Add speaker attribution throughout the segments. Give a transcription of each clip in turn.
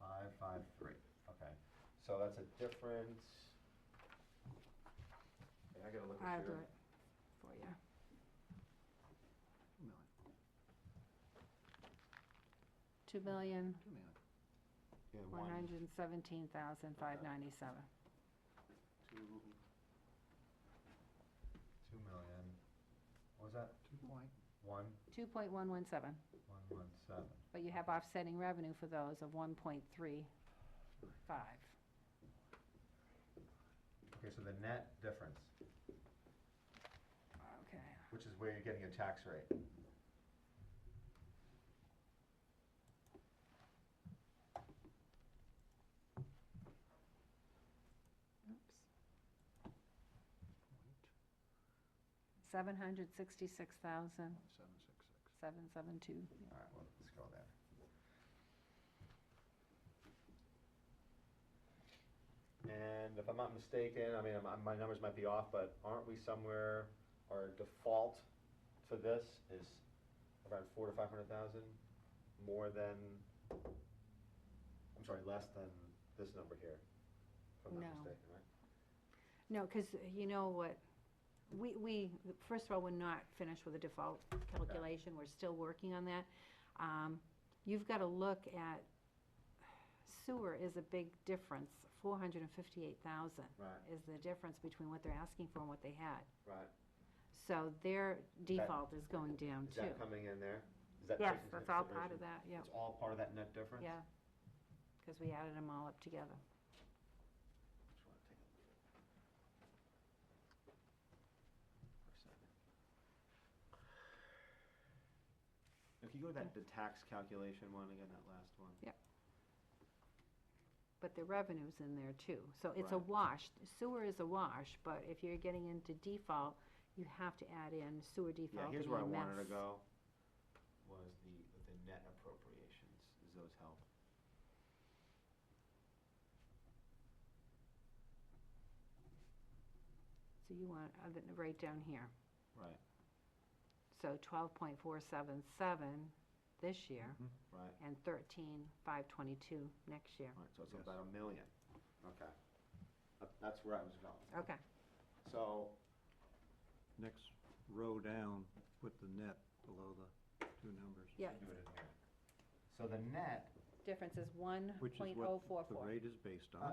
Speaker 1: five,
Speaker 2: Right.
Speaker 1: okay. So that's a different. I gotta look
Speaker 3: I'll
Speaker 1: at
Speaker 3: do
Speaker 1: your,
Speaker 3: it for you.
Speaker 2: Two million, two
Speaker 3: Two million,
Speaker 2: million,
Speaker 1: yeah,
Speaker 3: one
Speaker 1: one,
Speaker 3: hundred and seventeen thousand, five ninety-seven.
Speaker 2: two,
Speaker 1: two million. What was that?
Speaker 2: two point,
Speaker 1: One,
Speaker 3: Two point one one seven,
Speaker 1: one, one, seven.
Speaker 3: but you have offsetting revenue for those of one point three five.
Speaker 1: Okay, so the net difference,
Speaker 3: Okay,
Speaker 1: which is where you're getting your tax rate.
Speaker 3: oops.
Speaker 2: point,
Speaker 3: Seven hundred sixty-six thousand,
Speaker 2: seven, six, six.
Speaker 3: seven seven two.
Speaker 1: All right, well, let's go there. And if I'm not mistaken, I mean, I'm- my numbers might be off, but aren't we somewhere, our default to this is around four to five hundred thousand? More than, I'm sorry, less than this number here, if I'm not
Speaker 3: No.
Speaker 1: mistaken, right?
Speaker 3: No, because you know what, we, we, first of all, we're not finished with the default calculation, we're still working on that. Um, You've got to look at, sewer is a big difference, four hundred and fifty-eight thousand.
Speaker 1: Right.
Speaker 3: Is the difference between what they're asking for and what they had.
Speaker 1: Right.
Speaker 3: So their default is going down
Speaker 1: Is that
Speaker 3: too.
Speaker 1: coming in there? Is that
Speaker 3: Yes,
Speaker 1: taken into
Speaker 3: that's all part of
Speaker 1: consideration?
Speaker 3: that, yeah,
Speaker 1: It's all part of that net difference?
Speaker 3: yeah. Because we added them all up together.
Speaker 1: Just wanna take a look. For a second. If you go to that, the tax calculation one, again, that last one.
Speaker 3: Yep. But the revenue's in there too, so it's a
Speaker 1: Right.
Speaker 3: wash. Sewer is a wash, but if you're getting into default, you have to add in sewer default
Speaker 1: Yeah, here's
Speaker 3: and
Speaker 1: where I wanted to
Speaker 3: EMS.
Speaker 1: go, was the, the net appropriations, does those help?
Speaker 3: So you want, uh, the- right down here.
Speaker 1: Right,
Speaker 3: So twelve point four seven seven this year,
Speaker 1: right,
Speaker 3: and thirteen five twenty-two next year.
Speaker 1: right, so it's
Speaker 2: Yes.
Speaker 1: about a million. Okay. That- That's where I was going.
Speaker 3: Okay,
Speaker 1: So,
Speaker 4: next row down, put the net below the two numbers.
Speaker 3: yeah,
Speaker 1: do it in here. So the net,
Speaker 3: difference is one
Speaker 4: Which is
Speaker 3: point oh four
Speaker 4: what the
Speaker 3: four.
Speaker 4: rate is based
Speaker 1: uh,
Speaker 4: on.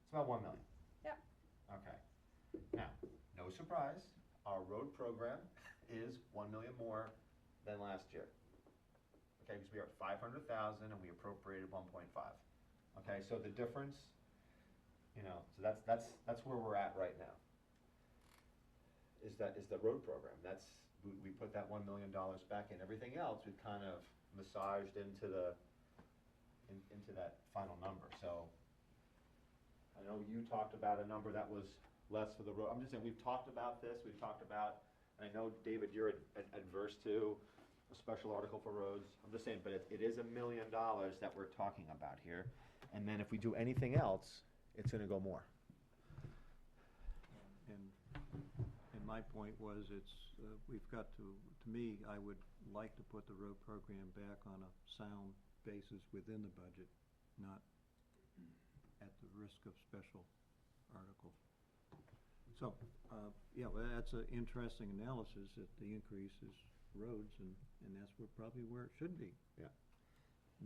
Speaker 1: it's about one million.
Speaker 3: Yep,
Speaker 1: Okay. Now, no surprise, our road program is one million more than last year. Okay, because we are at five hundred thousand and we appropriated one point five. Okay, so the difference, you know, so that's, that's, that's where we're at right now. Is that, is the road program, that's, we, we put that one million dollars back in, everything else we've kind of massaged into the, in- into that final number, so. I know you talked about a number that was less for the road, I'm just saying, we've talked about this, we've talked about, and I know, David, you're ad- ad- adverse to a special article for roads, I'm just saying, but it, it is a million dollars that we're talking about here, and then if we do anything else, it's gonna go more.
Speaker 4: And, and my point was, it's, uh, we've got to, to me, I would like to put the road program back on a sound basis within the budget, not at the risk of special articles. So, uh, yeah, well, that's an interesting analysis, that the increase is roads, and, and that's where, probably where it should be.
Speaker 1: Yeah.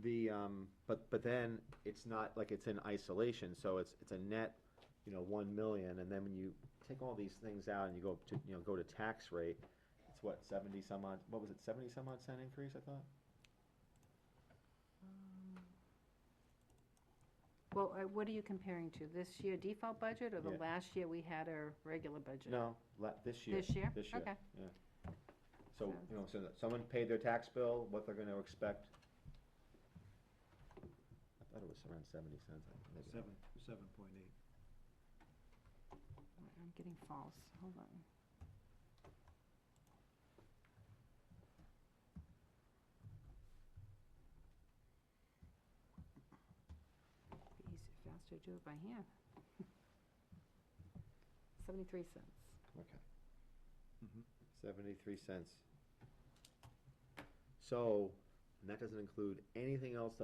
Speaker 1: The, um, but, but then it's not like it's in isolation, so it's, it's a net, you know, one million, and then when you take all these things out and you go to, you know, go to tax rate, it's what, seventy some odd, what was it, seventy some odd cent increase, I thought?
Speaker 3: well, uh, what are you comparing to, this year default budget, or the
Speaker 1: Yeah.
Speaker 3: last year we had a regular budget?
Speaker 1: No, la, this year.
Speaker 3: This year?
Speaker 1: This year,
Speaker 3: Okay.
Speaker 1: yeah. So, you know, so that someone paid their tax bill, what they're gonna expect. I thought it was around seventy cents, I think, maybe.
Speaker 4: Seven, seven point eight.
Speaker 3: I'm getting false, hold on. Be easier, faster to do it by hand. Seventy-three cents.
Speaker 1: Okay.
Speaker 4: Mm-hmm.
Speaker 1: 73 cents. So, and that doesn't include anything else that